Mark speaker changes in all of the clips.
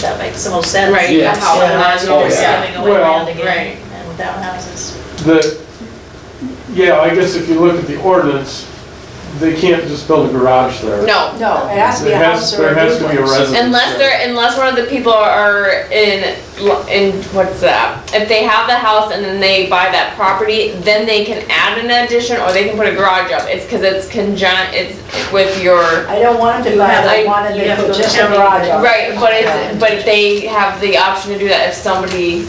Speaker 1: That makes the most sense.
Speaker 2: Right,
Speaker 3: Yeah.
Speaker 2: that's how it
Speaker 1: Yeah,
Speaker 2: was
Speaker 1: you're
Speaker 3: Oh,
Speaker 1: just
Speaker 2: always,
Speaker 3: yeah.
Speaker 1: giving away
Speaker 3: Well,
Speaker 1: land again,
Speaker 2: right.
Speaker 1: and without houses.
Speaker 3: The, yeah, I guess if you look at the ordinance, they can't just build a garage there.
Speaker 2: No,
Speaker 4: No, it has to be a
Speaker 3: There has-
Speaker 4: house or a
Speaker 3: There has to be a
Speaker 4: duplex.
Speaker 3: residence.
Speaker 2: unless
Speaker 3: there.
Speaker 2: they're, unless one of the people are in, in, what's that? If they have the house and then they buy that property, then they can add an addition or they can put a garage up. It's because it's conjunct, it's with your,
Speaker 4: I don't want them to
Speaker 1: You
Speaker 4: buy,
Speaker 1: have-
Speaker 4: I
Speaker 2: I-
Speaker 4: wanted
Speaker 1: you
Speaker 4: to
Speaker 1: have
Speaker 4: put
Speaker 1: to
Speaker 4: just a
Speaker 1: count it.
Speaker 4: garage on it.
Speaker 2: right, but
Speaker 4: Yeah.
Speaker 2: it's, but they have the option to do that if somebody,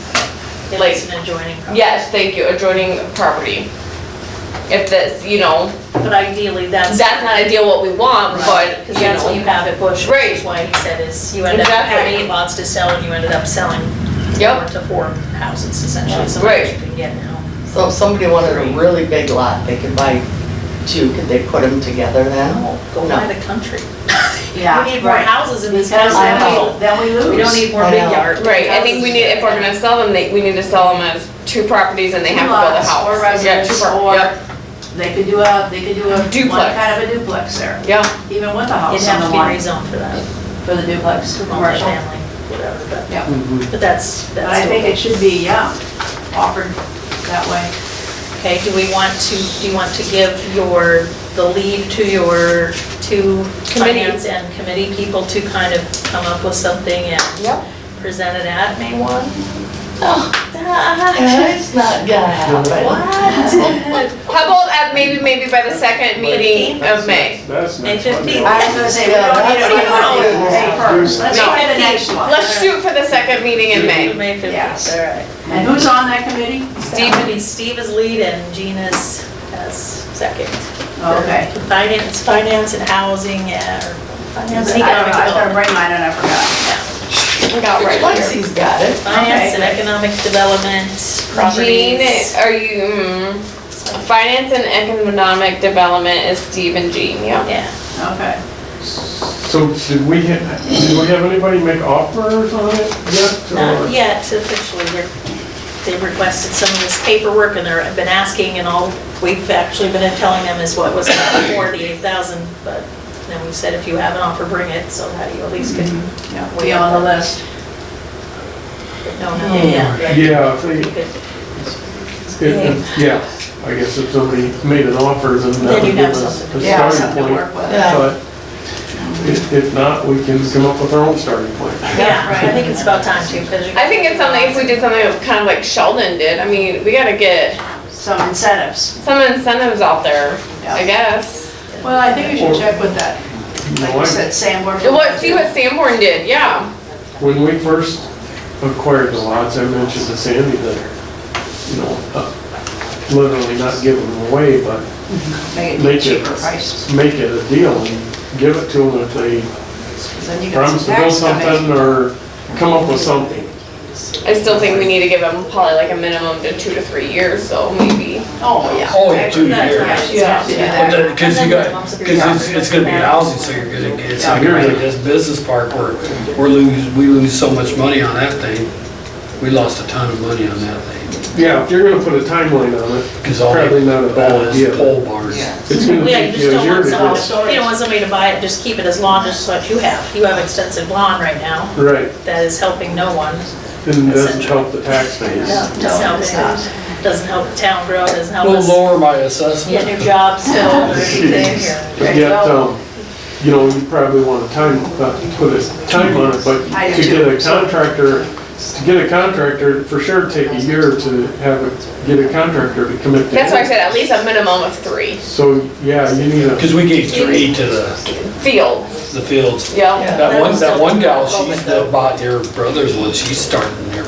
Speaker 1: If
Speaker 2: Like-
Speaker 1: it's an adjoining property.
Speaker 2: yes, thank you, adjoining property. If that's, you know,
Speaker 1: But ideally, that's.
Speaker 2: that's not ideal what we want, but,
Speaker 1: Because
Speaker 2: you
Speaker 1: that's what you
Speaker 2: know.
Speaker 1: have at Bush, which is
Speaker 2: Right.
Speaker 1: why he said is you end up having
Speaker 2: Exactly.
Speaker 1: eight lots to sell and you ended up selling
Speaker 2: Yep.
Speaker 1: four to four houses essentially, so
Speaker 2: Right.
Speaker 1: much you can get now.
Speaker 5: So if somebody wanted a really big lot, they could buy two, could they put them together then?
Speaker 1: No, Go
Speaker 5: No.
Speaker 1: buy the country.
Speaker 4: Yeah,
Speaker 1: We need more
Speaker 4: right.
Speaker 1: houses in this
Speaker 4: Because
Speaker 5: I
Speaker 1: country.
Speaker 5: know.
Speaker 4: then we, then we lose.
Speaker 1: We don't need more
Speaker 5: I
Speaker 1: big
Speaker 5: know.
Speaker 1: yard.
Speaker 2: Right, I think we need, if we're gonna sell them, they, we need to sell them as two properties and they have to build a
Speaker 4: Lots
Speaker 2: house.
Speaker 4: Or
Speaker 2: Yeah, two
Speaker 4: residence,
Speaker 2: pro-
Speaker 4: or
Speaker 2: yep,
Speaker 4: they could do a, they could do a, one
Speaker 2: Duplex.
Speaker 4: kind of a duplex there,
Speaker 2: Yeah,
Speaker 4: even with a
Speaker 1: It'd
Speaker 4: house on
Speaker 1: have to
Speaker 4: the
Speaker 1: be
Speaker 4: line
Speaker 1: rezoned for that,
Speaker 4: for the duplex,
Speaker 1: to
Speaker 4: commercial.
Speaker 1: multifamily, whatever, but,
Speaker 3: Mhm.
Speaker 1: but that's, that's.
Speaker 4: But I think it should be, yeah, offered that way.
Speaker 1: Okay, do we want to, do you want to give your, the lead to your two
Speaker 2: Committee.
Speaker 1: finance and committee people to kind of come up with something and
Speaker 5: Yep.
Speaker 1: present it at May 1?
Speaker 5: It's not gonna happen.
Speaker 2: how about at maybe, maybe by the second meeting of May?
Speaker 3: That's
Speaker 1: May
Speaker 3: next Monday.
Speaker 1: 15th.
Speaker 4: I was gonna say, we don't need
Speaker 5: Yeah,
Speaker 4: to
Speaker 5: that's
Speaker 4: do
Speaker 5: what
Speaker 4: it
Speaker 5: I
Speaker 4: May
Speaker 5: do.
Speaker 4: first, let's
Speaker 2: No.
Speaker 4: try the next one.
Speaker 2: Let's shoot for the second meeting in May.
Speaker 1: May 15th.
Speaker 4: Yes.
Speaker 1: All right.
Speaker 4: And who's on that committee?
Speaker 1: Steve, is- Steve is lead and Gina's as second.
Speaker 4: Okay.
Speaker 1: Finance, finance and housing, yeah, or finance and
Speaker 4: I
Speaker 1: economic
Speaker 4: I started
Speaker 1: development.
Speaker 4: writing mine and I forgot.
Speaker 2: We got right
Speaker 5: Once
Speaker 2: here.
Speaker 5: he's got it.
Speaker 1: Finance and economic development,
Speaker 2: Jean,
Speaker 1: properties.
Speaker 2: are you, mm, finance and economic development is Steve and Jean, yeah.
Speaker 1: Yeah.
Speaker 4: Okay.
Speaker 3: So did we, ha- did we have anybody make offers on it yet?
Speaker 1: Not
Speaker 3: or-
Speaker 1: yet, officially, they're, they've requested some of this paperwork, and they're, I've been asking, and all we've actually been telling them is what was about forty-eight thousand, but then we said, if you have an offer, bring it, so that you at least can
Speaker 4: Yeah, we on the list.
Speaker 1: know now. Yeah.
Speaker 3: Yeah, if
Speaker 1: You
Speaker 3: they-
Speaker 1: could-
Speaker 3: it- it- yeah, I guess if somebody made an offer, then that
Speaker 1: Then
Speaker 3: would
Speaker 1: you'd
Speaker 3: give
Speaker 1: have
Speaker 3: us
Speaker 1: something.
Speaker 3: a
Speaker 4: Yeah,
Speaker 3: starting
Speaker 4: something to
Speaker 3: point.
Speaker 4: work with.
Speaker 5: Yeah.
Speaker 3: But if, if not, we can come up with our own starting point.
Speaker 1: Yeah, I think it's about time too, because you.
Speaker 2: I think it's something, if we did something kind of like Sheldon did, I mean, we gotta get
Speaker 4: Some incentives.
Speaker 2: some incentives out there, I
Speaker 4: Yeah.
Speaker 2: guess.
Speaker 4: Well, I think we should check with that,
Speaker 3: You know,
Speaker 4: like
Speaker 3: I-
Speaker 4: you said, Sanborn.
Speaker 2: What, see what Sanborn did, yeah.
Speaker 3: When we first acquired the lots, I mentioned to Sandy that, you know, uh, literally not give them away, but
Speaker 4: Make
Speaker 3: Make
Speaker 4: it
Speaker 3: it-
Speaker 4: cheaper prices,
Speaker 3: make it a deal and give it to them if they
Speaker 4: 'cause then you got
Speaker 3: promise
Speaker 4: some
Speaker 3: to build
Speaker 4: tax coming.
Speaker 3: something or come up with something.
Speaker 2: I still think we need to give them probably like a minimum to two to three years, so maybe.
Speaker 4: Oh, yeah.
Speaker 6: Oh, yeah, two
Speaker 4: That's
Speaker 6: years.
Speaker 4: right.
Speaker 5: Yeah.
Speaker 4: Yeah.
Speaker 6: Because you got, because it's, it's gonna be housing, so you're gonna get, it's not gonna be like this business park where we're lose, we lose so much money on that thing. We lost a ton of money on that thing,
Speaker 3: Yeah, if you're gonna put a timeline on it,
Speaker 6: because all,
Speaker 3: Probably not a bad
Speaker 6: all
Speaker 3: idea.
Speaker 6: this pole barns.
Speaker 5: Yeah.
Speaker 3: it's gonna
Speaker 1: Yeah, you
Speaker 3: take you
Speaker 1: just
Speaker 3: a
Speaker 1: don't
Speaker 3: year
Speaker 1: want
Speaker 3: to get.
Speaker 1: someone, you don't want somebody to buy it, just keep it as long as what you have. You have extensive lawn right now,
Speaker 3: Right,
Speaker 1: that is helping no one.
Speaker 3: and it doesn't help the tax base.
Speaker 4: No, it's not.
Speaker 1: Doesn't help the town grow, doesn't help
Speaker 6: We'll
Speaker 1: us.
Speaker 6: lower my
Speaker 1: get new
Speaker 6: assessment.
Speaker 1: jobs filled or anything, or-
Speaker 3: But yet, um, you know, you probably want to time, uh, put a time on it, but
Speaker 4: I
Speaker 3: to
Speaker 4: do.
Speaker 3: get a contractor, to get a contractor, for sure take a year to have, a- get a contractor to commit to.
Speaker 2: That's why I
Speaker 3: it.
Speaker 2: said at least a minimum of three.
Speaker 3: So, yeah, you need a,
Speaker 6: Because we gave three to the,
Speaker 2: Field,
Speaker 6: the fields.
Speaker 2: yeah.
Speaker 6: That one, that one gal, she's that bought your brother's one, she's starting there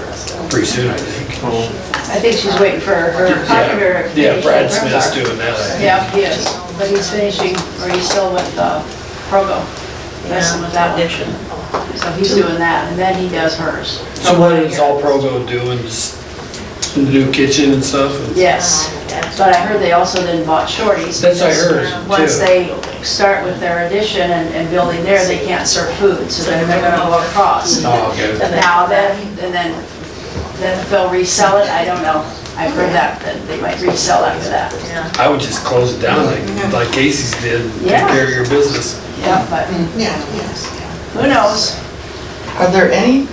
Speaker 6: pretty soon, I think.
Speaker 3: oh,
Speaker 4: I think she's waiting for her popular.
Speaker 6: Yeah, Brad Smith's doing that, I think.
Speaker 4: Yeah, he is, but he's finishing, or he's still with, uh, Progo, messing with that one,
Speaker 1: Addition.
Speaker 4: so he's doing that, and then he does hers.
Speaker 6: So what is all Provo doing, just the new kitchen and stuff?
Speaker 4: Yes, but I heard they also then bought Shorty's.
Speaker 6: That's what I
Speaker 4: because
Speaker 6: heard,
Speaker 4: Once
Speaker 6: too.
Speaker 4: they start with their addition and, and building there, they can't serve food, so then they're gonna go across.
Speaker 6: Oh, okay.
Speaker 4: Now then, and then, then if they'll resell it, I don't know, I've heard that, that they might resell after that,
Speaker 1: Yeah.
Speaker 6: I would just close it down like, like Casey's did, take
Speaker 4: Yeah.
Speaker 6: care of your business.
Speaker 4: yeah, but
Speaker 7: Yeah, yes.
Speaker 4: who knows?
Speaker 5: Are there any